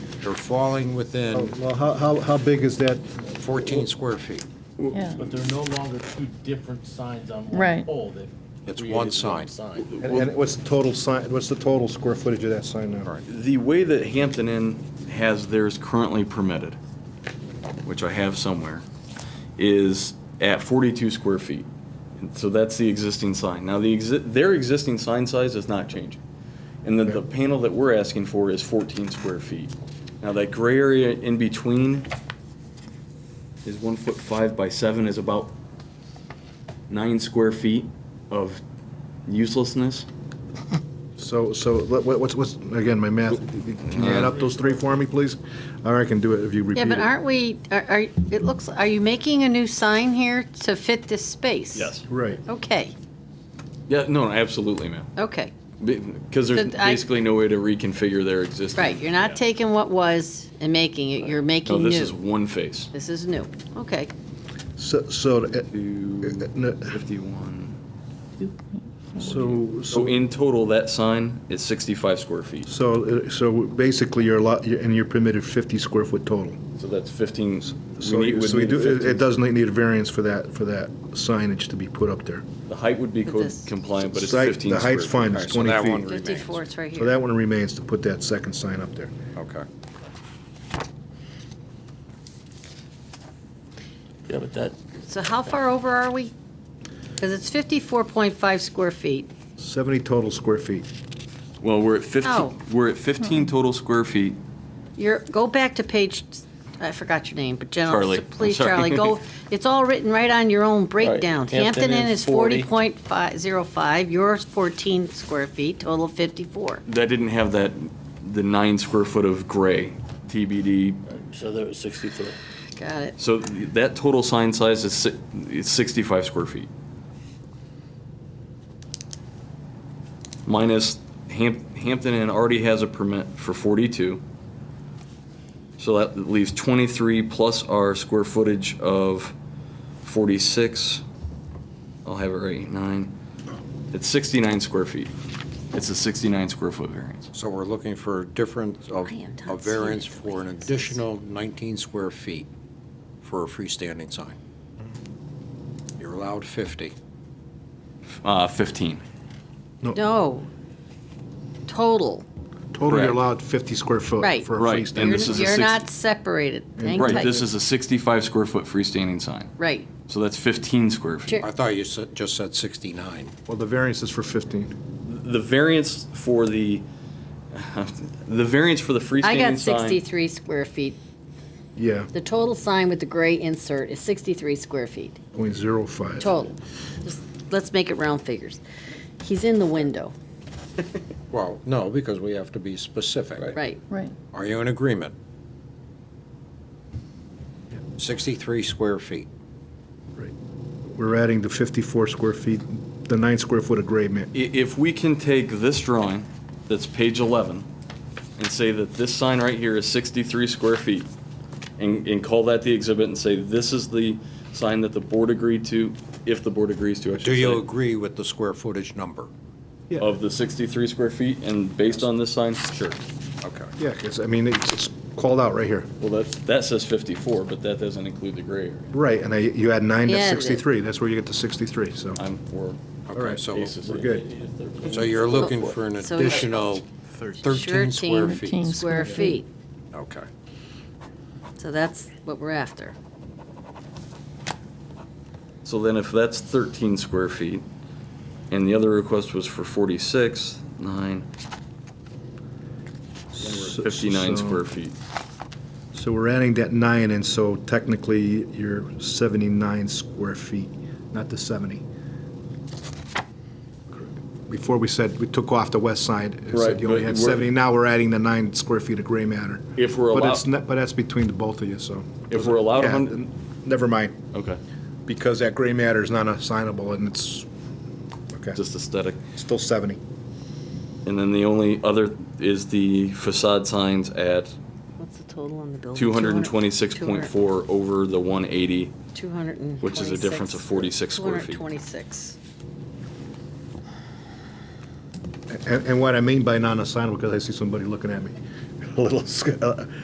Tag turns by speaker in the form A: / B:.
A: They're falling
B: Oh.
A: within
C: Oh, Well, how, how, how big is that?
A: 14 square feet.
D: Yeah.
E: But they're no longer two different signs on one
D: Right.
E: pole. They've
A: It's
E: created
A: one sign.
E: sign.
C: And- And what's the total sign, what's the total square footage of that sign now?
A: Right.
F: The way that Hampton Inn has theirs currently permitted, which I have somewhere, is at 42 square feet. And So that's the existing sign. Now, the exi- their existing sign size is not changing. And then the panel that we're asking for is 14 square feet. Now, that gray area in between is one foot five by seven is about nine square feet of uselessness.
C: So, so let- what- what's, what's, again, my math, can you add up those three for me, please? Or I can do it if you repeat
B: Yeah,
C: it.
B: but aren't we, are, are- it looks, are you making a new sign here to fit this space?
C: Right.
B: Okay,
F: Yeah, no, absolutely, ma'am.
B: okay,
F: Because there's
B: So I-
F: basically no way to reconfigure their existing.
B: right, you're not taking what was and making it, you're
F: No,
B: making
F: Oh, this is
B: new.
F: one face.
B: This is new, okay.
C: So, so, uh, no,
F: Fifty-one.
C: so,
F: So
C: so,
F: in total, that sign is sixty-five square feet.
C: so, uh, so basically you're a lot, and you're permitted 50 square foot total.
F: So that's fifteen.
C: So,
F: we need-
C: so
F: we
C: you
F: need a
C: do, it-
F: 15.
C: it doesn't need a variance for that, for that signage to be put up there.
F: The height would be
B: But
F: code
B: this-
F: compliant, but it's
C: Site-
F: fifteen.
C: The height's
F: square
C: fine,
F: feet.
C: it's
A: All right, so
C: 20
A: that one
C: feet.
A: remains.
B: 54, it's right
C: So
B: here.
C: that one remains to put that second sign up there.
A: Okay.
E: Yeah, but that,
B: So how far over are we? Because it's 54.5 square feet.
C: 70 total square feet.
F: Well, we're at
B: Oh.
F: fifteen, we're at fifteen total square feet.
B: You're, go back to page, I forgot your name, but General.
F: Charlie, I'm
B: Please,
F: sorry.
B: Charlie, go, it's all written right on your own breakdown.
E: Hampton
B: Hampton Inn
E: Inn's
B: is 40.05, yours 14 square feet, total 54.
F: That didn't have that, the nine square foot of gray TBD.
E: so there was 63.
B: Got it.
F: So th- that total sign size is si- is sixty-five square feet. Minus Hamp- Hampton Inn already has a permit for forty-two. So that leaves twenty-three plus our square footage of forty-six. I'll have it right, nine. It's sixty-nine square feet. It's a sixty-nine square foot variance.
A: So we're looking for a difference of,
B: I am not
A: a variance
B: seeing it the
A: for an
B: way it says.
A: additional 19 square feet for a freestanding sign. You're allowed 50.
F: Uh, fifteen.
B: No, total,
C: Total, you're
F: Correct.
C: allowed 50 square foot
B: Right.
C: for a
F: Right,
C: freestanding.
F: And
B: you're,
F: this is a
B: you're
F: six-
B: not separated. Hang
F: Right,
B: tight.
F: this is a sixty-five square foot freestanding sign.
B: Right,
F: So that's 15 square feet.
B: Sure.
A: I thought you said- just said 69.
C: Well, the variance is for 15.
F: The variance for the, the variance for the freestanding
B: I got
F: sign-
B: 63 square feet,
C: Yeah,
B: the total sign with the gray insert is 63 square feet.
C: .05.
B: Total. Just, let's make it round figures. He's in the window,
A: Well, no, because we have to be specific.
B: right?
D: Right.
A: Are you in agreement? 63 square feet.
C: Right. We're adding the 54 square feet, the nine square foot of gray ma-
F: I- If we can take this drawing, that's page 11, and say that this sign right here is 63 square feet, and, and call that the exhibit and say, this is the sign that the board agreed to, if the board agrees to, I
A: Do you
F: should
A: agree with the square footage number?
F: say, of the 63 square feet, and based on this sign? Sure.
A: Okay.
C: Yeah, because, I mean, it's it's called out right here.
F: Well, that, that says 54, but that doesn't include the gray area.
C: Right, and I- you add nine to
B: Yeah, it is.
C: 63, that's where you get to 63, so.
F: I'm, we're.
A: Okay, so,
F: basically-
C: we're good.
A: so you're looking for an
B: So it's-
A: additional 13 square
B: 13
A: feet?
B: Square feet.
A: Okay.
B: So that's what we're after.
F: So then if that's 13 square feet, and the other request was for 46, 9, then we're at 59
C: So-
F: square feet.
C: So we're adding that nine, and so technically, you're 79 square feet, not the 70. Before we said, we took off the west side, and
F: Right,
C: said you only
F: but
C: had
F: we're-
C: 70, now we're adding the nine square feet of gray matter.
F: If we're
C: But
F: allow-
C: it's not- But that's between the both of you, so.
F: If we're allowed
C: Yeah,
F: 100,
C: Never mind,
F: okay,
C: because that gray matter is not assignable, and it's, okay,
F: just aesthetic.
C: still 70.
F: And then the only other is the facade signs at
B: What's the total on the building?
F: 226.4 over the 180.
B: 200,
F: Which is a difference of 46 square feet.
B: 226.
C: And, and what I mean by non-assignable, because I see somebody looking at me, a little, sc- uh,